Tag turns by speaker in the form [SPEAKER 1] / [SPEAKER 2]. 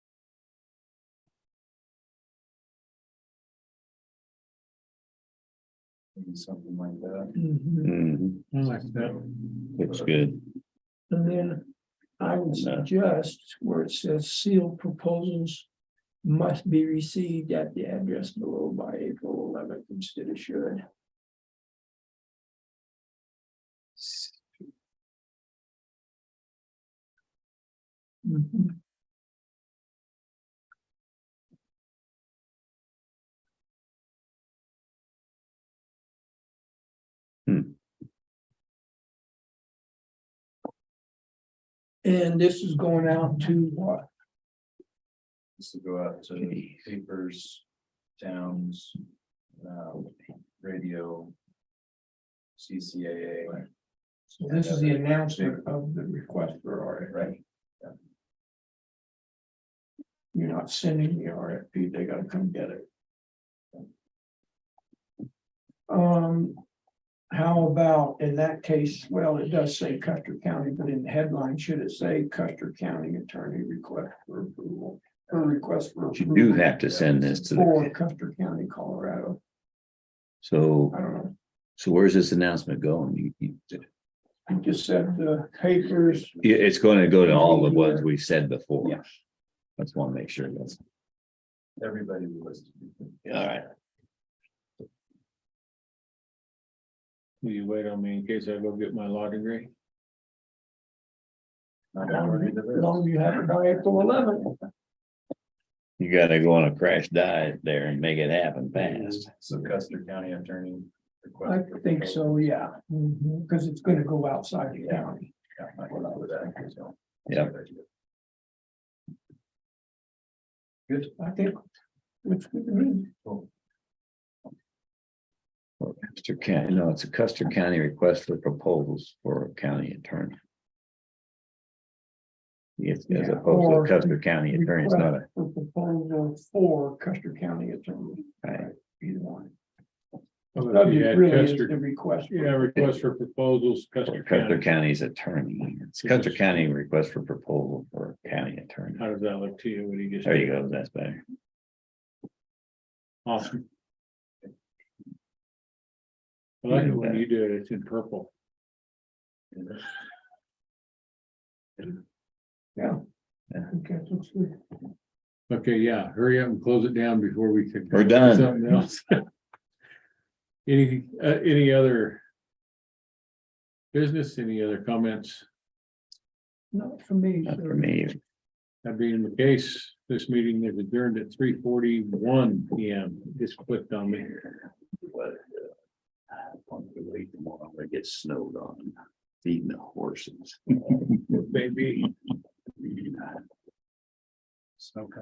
[SPEAKER 1] something like that.
[SPEAKER 2] Mhm.
[SPEAKER 3] Mhm,
[SPEAKER 2] I like that.
[SPEAKER 3] looks good.
[SPEAKER 2] And then I would
[SPEAKER 3] And, uh,
[SPEAKER 2] suggest where it says sealed proposals must be received at the address below by April eleventh instead of should. Mhm. And this is going out to what?
[SPEAKER 1] This will go out to papers, towns, um, radio. CCAA.
[SPEAKER 2] So this is the announcement of the request for RFP.
[SPEAKER 1] Right.
[SPEAKER 2] You're not sending the RFP, they gotta come get it. Um, how about in that case, well, it does say Custer County, but in the headline, should it say Custer County Attorney Request for Approval? Or request for.
[SPEAKER 3] But You do
[SPEAKER 2] approval
[SPEAKER 3] have to send this to
[SPEAKER 2] For
[SPEAKER 3] the,
[SPEAKER 2] Custer County, Colorado,
[SPEAKER 3] so,
[SPEAKER 2] I don't know,
[SPEAKER 3] so where's this announcement going? You- you-
[SPEAKER 2] I just said the papers,
[SPEAKER 3] Yeah, it's gonna go to all the ones we've said before.
[SPEAKER 2] Yeah.
[SPEAKER 3] Let's wanna make sure that's,
[SPEAKER 1] Everybody was.
[SPEAKER 3] all right,
[SPEAKER 4] Will you wait on me in case I go get my law degree?
[SPEAKER 1] Not everybody did
[SPEAKER 2] as
[SPEAKER 1] it.
[SPEAKER 2] long as you have it by April eleventh.
[SPEAKER 3] you gotta go on a crash diet there and make it happen fast.
[SPEAKER 1] So Custer County Attorney.
[SPEAKER 2] I
[SPEAKER 1] request for
[SPEAKER 2] think
[SPEAKER 1] proposal.
[SPEAKER 2] so, yeah,
[SPEAKER 3] Mm-hmm.
[SPEAKER 2] because it's gonna go outside the
[SPEAKER 1] Yeah.
[SPEAKER 2] county.
[SPEAKER 1] Yeah, I would- I would add it, so.
[SPEAKER 3] Yeah.
[SPEAKER 1] Good.
[SPEAKER 2] I think. It's good to me.
[SPEAKER 3] Or Custer County, no, it's a Custer County request for proposals for a county attorney. Yes, as
[SPEAKER 2] Yeah,
[SPEAKER 3] opposed
[SPEAKER 2] or-
[SPEAKER 3] to Custer County attorney, it's not a,
[SPEAKER 2] For proposal for Custer County attorney,
[SPEAKER 3] right,
[SPEAKER 2] either one.
[SPEAKER 4] Well, if you
[SPEAKER 2] Really
[SPEAKER 4] had
[SPEAKER 2] is
[SPEAKER 4] Custer-
[SPEAKER 2] the request. for-
[SPEAKER 4] Yeah, request for proposals, Custer
[SPEAKER 3] or Custer
[SPEAKER 4] County.
[SPEAKER 3] County's attorney, it's Custer County request for proposal for county attorney.
[SPEAKER 4] How does that look to you? What do you just?
[SPEAKER 3] There you go, that's better.
[SPEAKER 4] Awesome. I like it when you do it, it's in purple.
[SPEAKER 2] Yeah.
[SPEAKER 3] Yeah.
[SPEAKER 2] Okay, looks good.
[SPEAKER 4] Okay, yeah, hurry up and close it down before we can.
[SPEAKER 3] We're done.
[SPEAKER 4] Something else. Any, uh, any other? Business, any other comments?
[SPEAKER 2] Not for me.
[SPEAKER 3] Not
[SPEAKER 2] so-
[SPEAKER 3] for me,
[SPEAKER 4] That being the case, this meeting is adjourned at three forty-one P M. Just clicked on me.
[SPEAKER 3] but. uh, I'm gonna wait tomorrow, it gets snowed on, feeding the horses.
[SPEAKER 4] Maybe.
[SPEAKER 1] Snow